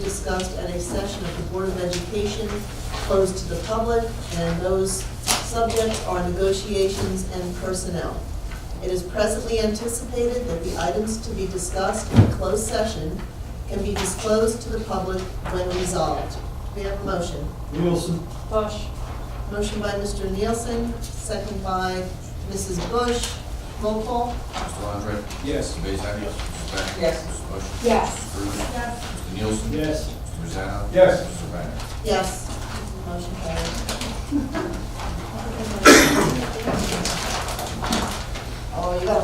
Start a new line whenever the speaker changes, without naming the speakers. discussed at a session of the Board of Education closed to the public, and those subjects are negotiations and personnel. It is presently anticipated that the items to be discussed in closed session can be disclosed to the public when resolved. We have a motion.
Nielsen.
Bush,
Motion by Mr. Nielsen, second by Mrs. Bush. Roll call?
Mr. Andre?
Yes.
Mr. Bezak? Yes.
Yes.
Mr. Beck? Mr. Bush?
yes.
Brewer?
Yes.
Mr. Nielsen?
Yes.
Mr. Rosanna?
Yes.
Mr. Wagner?
Yes. Motion carries. Oh, you got